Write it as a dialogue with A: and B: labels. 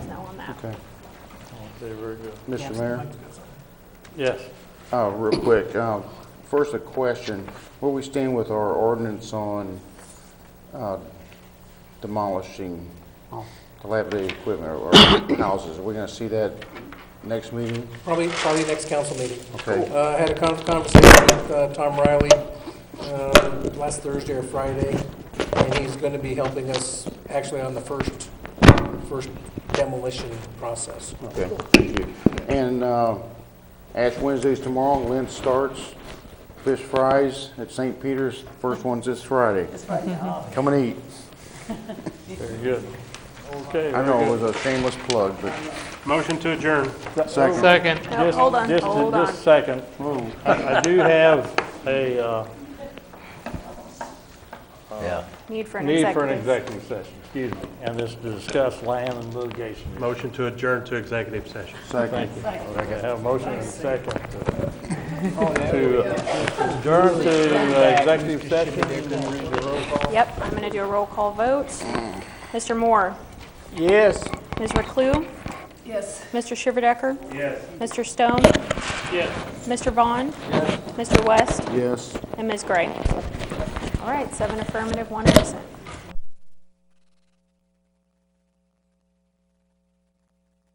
A: Okay.
B: Okay, Oh, very good.
A: Mr. Mayor?
B: Yes.
A: Uh, Real quick, um, first a question. Where we stand with our ordinance on uh, demolishing dilapidated equipment or houses? Are we going to see that next meeting?
C: Probably, probably next council meeting.
A: Okay.
C: Uh, I had a con- conversation with uh, Tom Riley um, last Thursday or Friday, and he's going to be helping us actually on the first, first demolition process.
A: Okay, thank you. And uh, Ash Wednesday's tomorrow, Lent starts, fish fries at St. Peter's, first one's this Friday. Come and eat.
B: Very good. Okay.
A: I
B: very
A: know
B: good.
A: it was a shameless plug, but
B: Motion to adjourn.
A: second.
D: Second.
E: No,
B: Just-
E: hold on,
B: just a-
E: Uh, hold on.
B: Just a second. I I do have a uh,
F: Yeah.
E: Need for an
B: need for an
E: executive.
B: executive session, excuse me, and this is to discuss land and litigation.
G: Motion to adjourn to executive session.
A: Second.
B: Thank you. Okay, I have a motion and a second to uh, adjourn to uh, executive session.
E: Yep, I'm going to do a roll call vote. Mr. Moore?
B: Yes.
E: Ms. Reclue? Yes. Mr. Shiverdecker?
B: Yes.
E: Mr. Stone?
B: Yes.
E: Mr. Vaughn? Mr. West?
A: Yes.
E: And Ms. Gray? All right, seven affirmative, one absent.